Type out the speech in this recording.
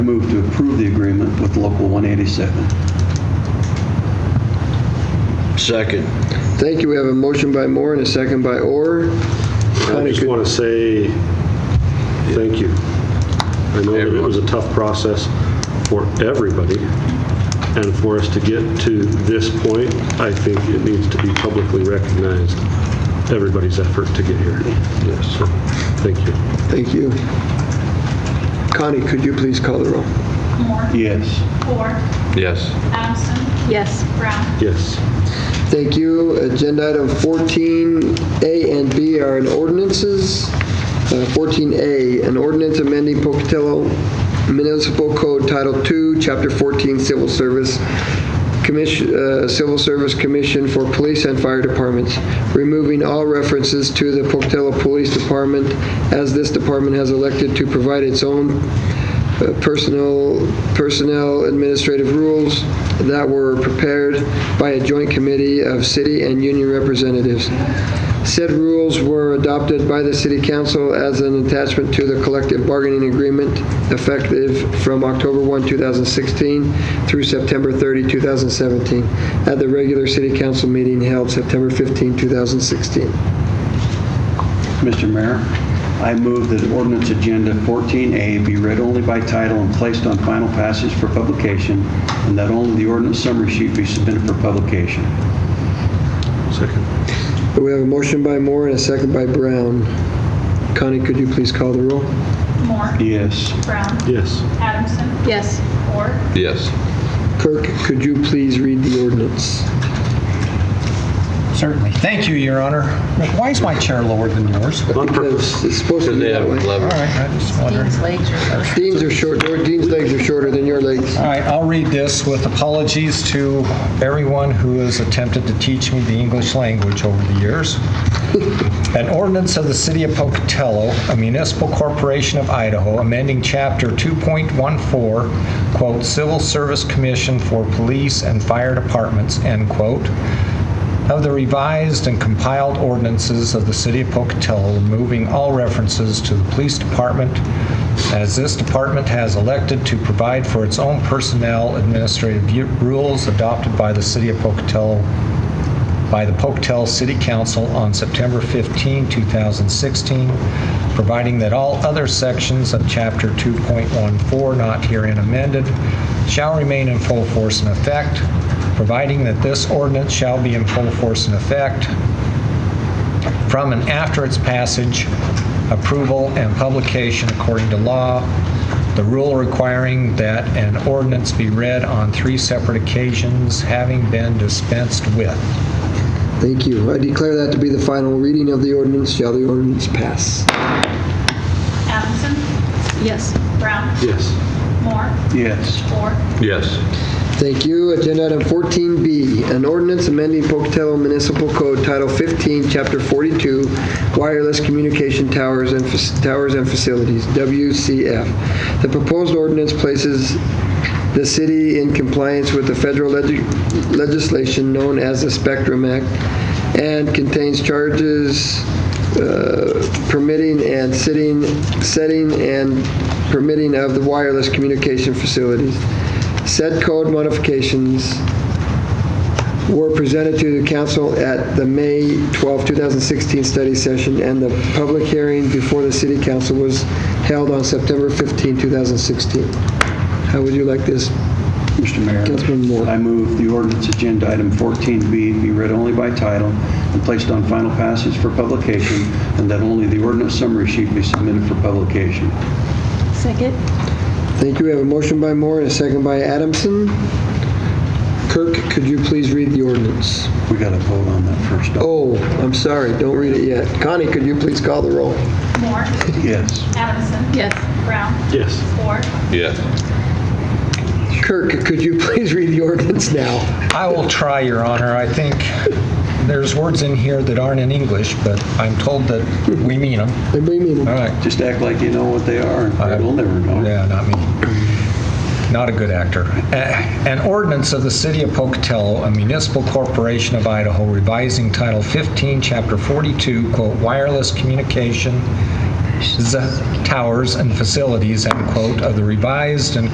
Move to approve the agreement with Local 187. Second. Thank you. We have a motion by Moore and a second by Orr. I Connie, just could- want to say thank you. I know that it was a tough process for everybody, and for us to get to this point, I think it needs to be publicly recognized, everybody's effort to get here. Yes. so, Thank you. Thank you. Connie, could you please call the roll? Moore. Yes. Ford. Yes. Adamson. Yes. Brown. Yes. Thank you. Agenda item 14A and B are in ordinances. Uh, 14A, an ordinance amending Pocatello Municipal Code Title II, Chapter 14, Civil Service Commission, uh, Civil Service Commission for Police and Fire Departments, removing all references to the Pocatello Police Department as this department has elected to provide its own uh, personnel, personnel administrative rules that were prepared by a joint committee of city and union representatives. Said rules were adopted by the city council as an attachment to the collective bargaining agreement effective from October 1, 2016 through September 30, 2017, at the regular city council meeting held September 15, 2016. Mr. Mayor, I move that ordinance agenda 14A be read only by title and placed on final passage for publication, and that only the ordinance summary sheet be submitted for publication. Second. We have a motion by Moore and a second by Brown. Connie, could you please call the roll? Moore. Yes. Brown. Yes. Adamson. Yes. Ford. Yes. Kirk, could you please read the ordinance? Certainly. Thank you, Your Honor. Why is my chair lower than yours? All On purpose. It's supposed to Because be they have that way. 11. right, I just wondering. Dean's legs are short. Dean's are short, or Dean's legs are shorter than your legs. All right, I'll read this with apologies to everyone who has attempted to teach me the English language over the years. An ordinance of the City of Pocatello, a municipal corporation of Idaho, amending Chapter 2.14, quote, "Civil Service Commission for Police and Fire Departments," end quote, of the revised and compiled ordinances of the City of Pocatello, removing all references to the Police Department, as this department has elected to provide for its own personnel administrative u- rules adopted by the City of Pocatello, by the Pocatello City Council on September 15, 2016, providing that all other sections of Chapter 2.14 not herein amended shall remain in full force and effect, providing that this ordinance shall be in full force and effect from and after its passage, approval, and publication according to law, the rule requiring that an ordinance be read on three separate occasions having been dispensed with. Thank you. I declare that to be the final reading of the ordinance. Shall the ordinance pass? Adamson. Yes. Brown. Yes. Moore. Yes. Ford. Yes. Thank you. Agenda item 14B, an ordinance amending Pocatello Municipal Code Title 15, Chapter 42, Wireless Communication Towers and Fac- Towers and Facilities, WCF. The proposed ordinance places the city in compliance with the federal leg- legislation known as the Spectrum Act and contains charges uh, permitting and sitting, setting and permitting of the wireless communication facilities. Said code modifications were presented to the council at the May 12, 2016 study session, and the public hearing before the city council was held on September 15, 2016. How would you like this? Mr. Mayor. Councilman Moore. I move the ordinance agenda item 14B be read only by title and placed on final passage for publication, and that only the ordinance summary sheet be submitted for publication. Second? Thank you. We have a motion by Moore and a second by Adamson. Kirk, could you please read the ordinance? We got to vote on that first. don't we? Oh, I'm sorry, don't read it yet. Connie, could you please call the roll? Moore. Oh. Yes. Adamson. Yes. Brown. Yes. Ford. Yes. Kirk, could you please read the ordinance now? I will try, Your Honor. I think there's words in here that aren't in English, but I'm told that we mean them. Anybody mean All right. Just act like you know what they are, and we'll never know. Yeah, not me. Not a good actor. A- An ordinance of the City of Pocatello, a municipal corporation of Idaho, revising Title 15, Chapter 42, quote, "Wireless Communication Z- Towers and Facilities," end quote, of the revised and